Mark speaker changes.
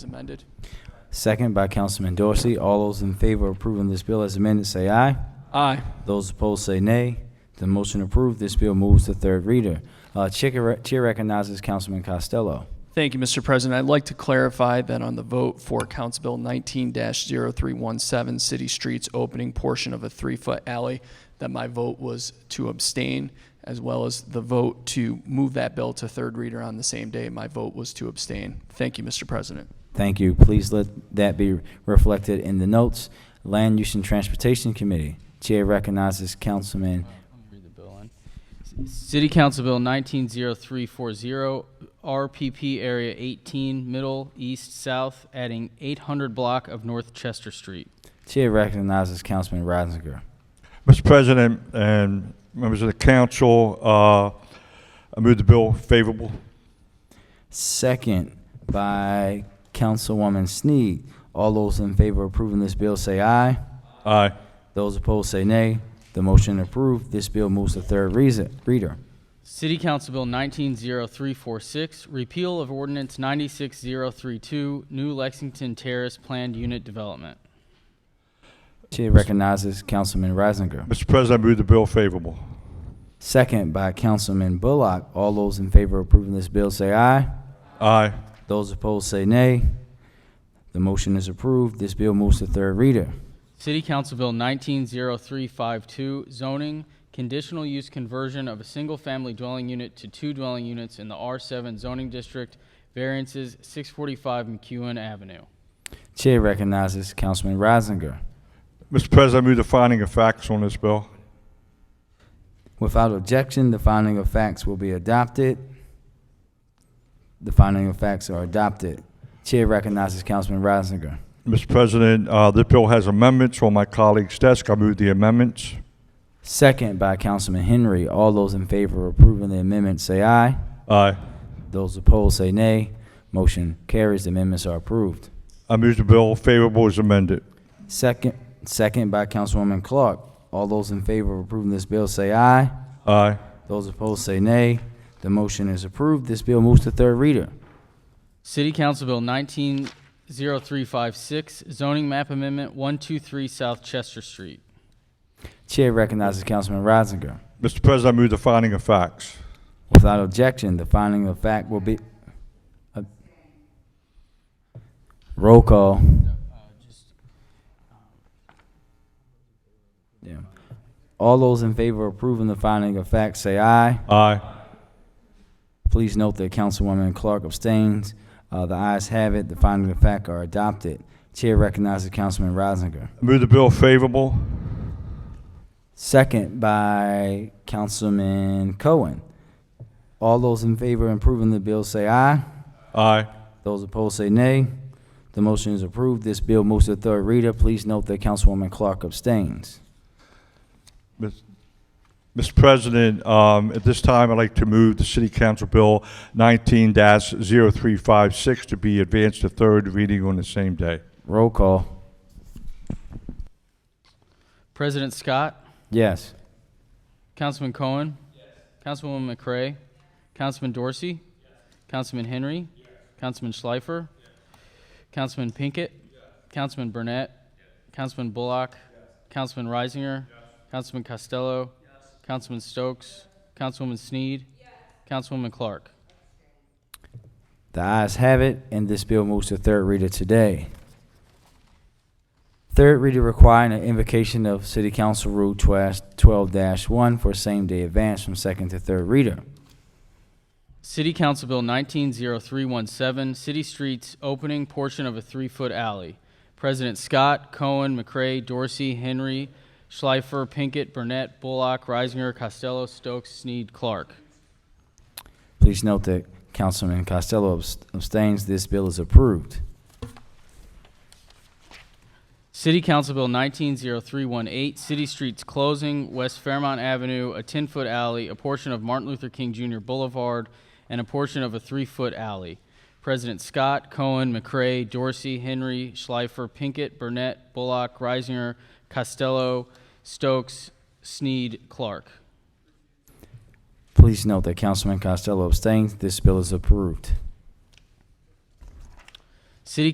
Speaker 1: amended.
Speaker 2: Second by Councilman Dorsey. All those in favor of approving this bill as amended, say aye.
Speaker 1: Aye.
Speaker 2: Those opposed say nay. The motion approved. This bill moves to third reader. Uh, Chair Chair recognizes Councilman Costello.
Speaker 1: Thank you, Mr. President. I'd like to clarify that on the vote for Council Bill 19-0317, City Streets opening portion of a three-foot alley, that my vote was to abstain, as well as the vote to move that bill to third reader on the same day. My vote was to abstain. Thank you, Mr. President.
Speaker 2: Thank you. Please let that be reflected in the notes. Land Use and Transportation Committee. Chair recognizes Councilman.
Speaker 3: Read the bill in. C- City Council Bill 190340, RPP Area 18, Middle, East, South, adding 800 block of North Chester Street.
Speaker 2: Chair recognizes Councilman Reisinger.
Speaker 4: Mr. President and members of the council, uh, I move the bill favorable.
Speaker 2: Second by Councilwoman Snead. All those in favor of approving this bill say aye.
Speaker 4: Aye.
Speaker 2: Those opposed say nay. The motion approved. This bill moves to third reason- reader.
Speaker 3: City Council Bill 190346, repeal of ordinance 96032, new Lexington Terrace Planned Unit Development.
Speaker 2: Chair recognizes Councilman Reisinger.
Speaker 4: Mr. President, I move the bill favorable.
Speaker 2: Second by Councilman Bullock. All those in favor of approving this bill say aye.
Speaker 4: Aye.
Speaker 2: Those opposed say nay. The motion is approved. This bill moves to third reader.
Speaker 3: City Council Bill 190352, zoning, conditional use conversion of a single-family dwelling unit to two dwelling units in the R7 zoning district, variances 645 McEwen Avenue.
Speaker 2: Chair recognizes Councilman Reisinger.
Speaker 4: Mr. President, I move the finding of facts on this bill.
Speaker 2: Without objection, the finding of facts will be adopted. The finding of facts are adopted. Chair recognizes Councilman Reisinger.
Speaker 4: Mr. President, uh, this bill has amendments on my colleague's desk. I move the amendments.
Speaker 2: Second by Councilman Henry. All those in favor of approving the amendment say aye.
Speaker 4: Aye.
Speaker 2: Those opposed say nay. Motion carries. The Amendments are approved.
Speaker 4: I move the bill favorable as amended.
Speaker 2: Second, second by Councilwoman Clark. All those in favor of approving this bill say aye.
Speaker 4: Aye.
Speaker 2: Those opposed say nay. The motion is approved. This bill moves to third reader.
Speaker 3: City Council Bill 190356, zoning map amendment 123 South Chester Street.
Speaker 2: Chair recognizes Councilman Reisinger.
Speaker 4: Mr. President, I move the finding of facts.
Speaker 2: Without objection, the finding of fact will be. uh, Roll call. Yeah. All those in favor of approving the finding of fact say aye.
Speaker 4: Aye.
Speaker 2: Please note that Councilwoman Clark abstains. Uh, The ayes have it, the finding of fact are adopted. Chair recognizes Councilman Reisinger.
Speaker 4: I move the bill favorable.
Speaker 2: Second by Councilman Cohen. All those in favor of approving the bill say aye.
Speaker 4: Aye.
Speaker 2: Those opposed say nay. The motion is approved. This bill moves to third reader. Please note that Councilwoman Clark abstains.
Speaker 4: Mis- Mr. President, um, at this time, I'd like to move the City Council Bill 19-0356 to be advanced to third reading on the same day.
Speaker 2: Roll call.
Speaker 3: President Scott,
Speaker 2: Yes.
Speaker 3: Councilman Cohen, Councilwoman McCray, Councilman Dorsey, Councilman Henry, Councilman Schleifer, Councilman Pinkett, Councilman Burnett, Councilman Bullock, Councilman Reisinger, Councilman Costello, Councilman Stokes, Councilwoman Sneed, Councilwoman Clark.
Speaker 2: The ayes have it, and this bill moves to third reader today. Third reader requiring an invocation of City Council Rule twelve one for same-day advance from second to third reader.
Speaker 3: City Council Bill 190317, City Streets Opening Portion of a Three-Foot Alley. President Scott, Cohen, McCray, Dorsey, Henry, Schleifer, Pinkett, Burnett, Bullock, Reisinger, Costello, Stokes, Sneed, Clark.
Speaker 2: Please note that Councilman Costello abs- abstains. This bill is approved.
Speaker 3: City Council Bill 190318, City Streets Closing, West Fairmont Avenue, a 10-foot alley, a portion of Martin Luther King Jr. Boulevard, and a portion of a three-foot alley. President Scott, Cohen, McCray, Dorsey, Henry, Schleifer, Pinkett, Burnett, Bullock, Reisinger, Costello, Stokes, Sneed, Clark.
Speaker 2: Please note that Councilman Costello abstains. This bill is approved.
Speaker 3: City